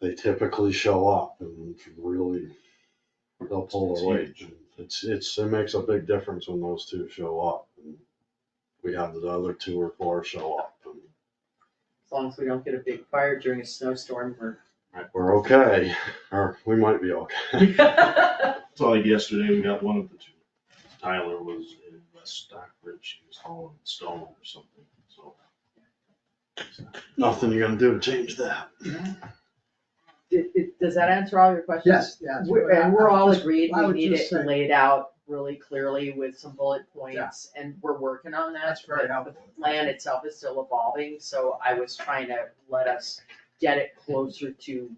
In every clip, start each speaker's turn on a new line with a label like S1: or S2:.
S1: they typically show up and really, they'll pull
S2: It's
S1: their weight. It's, it's, it makes a big difference when those two show up. and We have the other two or four show up and
S3: As long as we don't get a big fire during a snowstorm, we're.
S1: we're okay, or we might be okay.
S2: So like yesterday, we got one of the two. Tyler was in West Stockbridge, he was hauling stone or something, so.
S1: Nothing you're gonna do to change that.
S3: Did- did- Does that answer all your questions?
S4: Yes, yes.
S3: We're- And we're all
S4: Just-
S3: agreed,
S4: I
S3: we
S4: would
S3: need
S4: just
S3: it
S4: say-
S3: laid out really clearly with some bullet points, and we're working on that.
S4: That's very
S3: but
S4: helpful.
S3: The plan itself is still evolving, so I was trying to let us get it closer to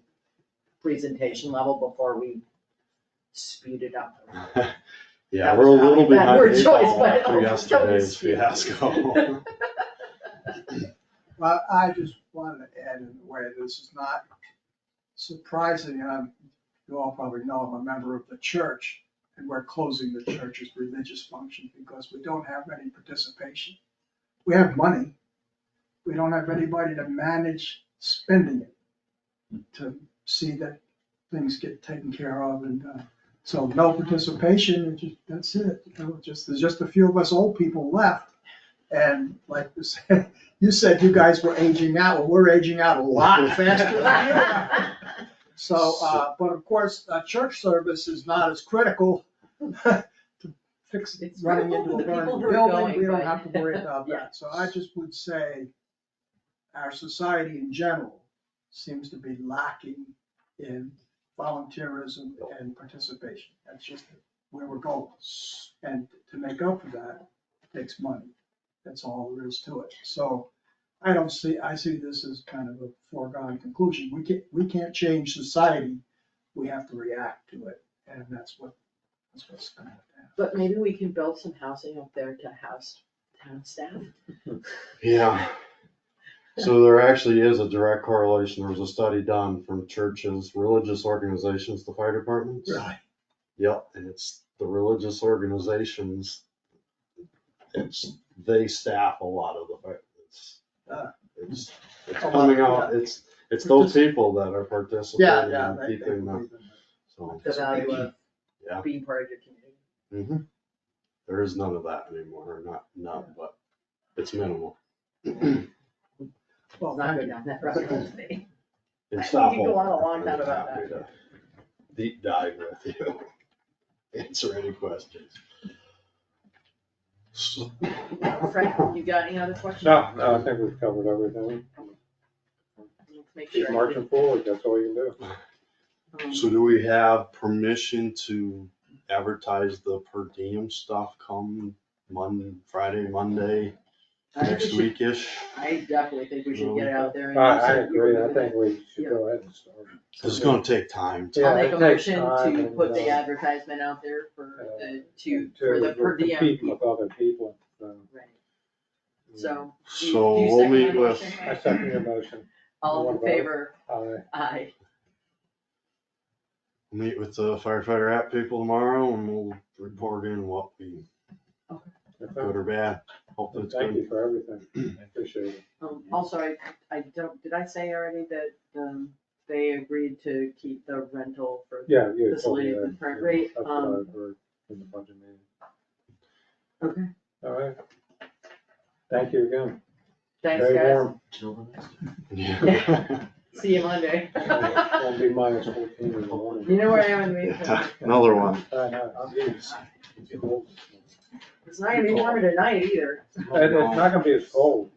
S3: presentation level before we speed it up.
S1: Yeah,
S3: That
S1: we're a
S3: was
S1: little
S3: probably a bad
S1: behind
S3: word
S1: eight
S3: choice,
S1: ball
S3: but
S1: after
S3: I'll still
S1: yesterday's
S3: speak.
S1: fiasco.
S4: Well, I just wanted to add in a way, this is not surprising, and I'm, you all probably know I'm a member of the church, and we're closing the church's religious function because we don't have any participation. We have money, we don't have anybody to manage spending it, to see that things get taken care of, and, uh, so no participation, and just, that's it. You know, just, there's just a few of us old people left, and like you said, you said you guys were aging out, well, we're aging out a lot faster than you are. So, uh, but of course, uh, church service is not as critical to fix
S3: It's
S4: running
S3: critical
S4: into
S3: to
S4: a
S3: the people
S4: burning
S3: who are
S4: building. We
S3: going,
S4: don't
S3: but-
S4: have to worry about
S3: Yeah.
S4: that. So I just would say our society in general seems to be lacking in volunteerism and participation. That's just where we're going. And to make up for that takes money. That's all there is to it. So I don't see, I see this as kind of a foregone conclusion. We can't, we can't change society. We have to react to it. And that's what, that's what's gonna happen.
S3: But maybe we can build some housing up there to house town staff.
S1: Yeah. So there actually is a direct correlation. There was a study done from churches, religious organizations, the fire departments. Yep, and it's the religious organizations. It's, they staff a lot of the fire. It's,
S4: Ah.
S1: it's, it's
S4: A lot,
S1: coming
S4: yeah.
S1: out, it's, it's those people that are
S4: Yeah,
S1: participating
S4: yeah.
S1: and
S4: they- they
S1: keeping them,
S4: believe in it.
S1: so.
S3: the value of
S1: Yeah.
S3: being part of your community.
S1: mhm. There is none of that anymore, or not, not, but it's minimal.
S4: Well,
S3: Let's not
S4: thank
S3: go
S4: you.
S3: down that rabbit hole today.
S1: It's
S3: I think
S1: awful.
S3: we could go on a long
S1: I'm
S3: time about
S1: happy to
S3: that.
S1: Deep dive with you. Answer any questions. So-
S3: Frank, you got any other questions?
S5: No, no, I think we've covered everything.
S3: Let's Make sure.
S5: Keep
S3: I
S5: marching forward, that's all you can do.
S3: did- um,
S1: So do we have permission to advertise the per diem stuff come Monday, Friday, Monday,
S3: I think we
S1: next
S3: should-
S1: weekish?
S3: I definitely think we should get it out there.
S5: I,
S3: and
S5: I
S3: use it.
S5: agree, I think we should go ahead and start.
S1: It's gonna take time.
S5: Yeah,
S3: I'll
S5: it
S3: make a
S5: takes
S3: motion
S5: time
S3: to
S5: and,
S3: put the
S5: uh,
S3: advertisement out there for
S5: uh,
S3: the, to, for the
S5: We're
S3: per diem.
S5: competing With other people, so. mm.
S3: Right, so,
S1: So
S3: Do you
S1: we'll
S3: second
S1: meet
S3: that
S1: with,
S3: motion?
S5: I second your motion,
S3: all in
S5: What about it?
S3: favor,
S5: I,
S3: aye.
S1: meet with the firefighter app people tomorrow and we'll report in what we, good or bad. Hopefully it's
S5: thank
S1: good.
S5: you for everything, I appreciate it.
S3: Um, also, I, I don't, did I say already that, um, they agreed to keep the rental for,
S5: Yeah, you told
S3: Facility
S5: me
S3: at the
S5: that.
S3: current rate,
S5: That's what
S3: um,
S5: I heard in the budget meeting.
S3: okay,
S5: All right. Thank you again.
S3: thanks
S5: Very
S3: guys,
S5: warm.
S1: Yeah.
S3: see you Monday.
S5: It's gonna be minus fourteen in the morning.
S3: You know where I am in the meantime,
S1: Another one.
S5: I know, I'm getting- It's cold.
S3: it's not gonna be warmer tonight either,
S5: It- It's not gonna be as cold.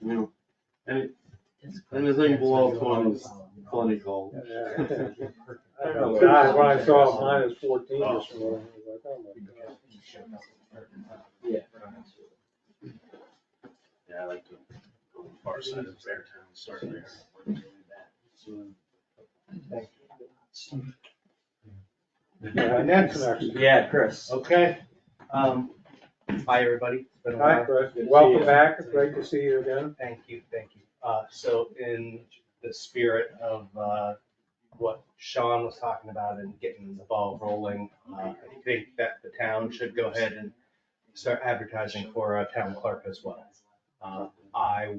S1: Yeah. Any- Anything below twenty is plenty cold.
S5: Yeah.
S6: I don't know.
S5: God, when I saw minus fourteen this morning, I was like, oh my God.
S2: Yeah, I like to go to the far side of Beartown, start there.
S5: Yeah, That's an accident.
S6: Yeah, Chris.
S2: Okay.
S6: Um, hi, everybody. It's been a
S5: Hi,
S6: while.
S5: Chris,
S6: Good to see
S5: welcome
S6: you.
S5: back, great to see you again.
S6: Thank you, thank you. Uh, so in the spirit of, uh, what Sean was talking about and getting the ball rolling, uh, I think that the town should go ahead and start advertising for a town clerk as well. Uh, I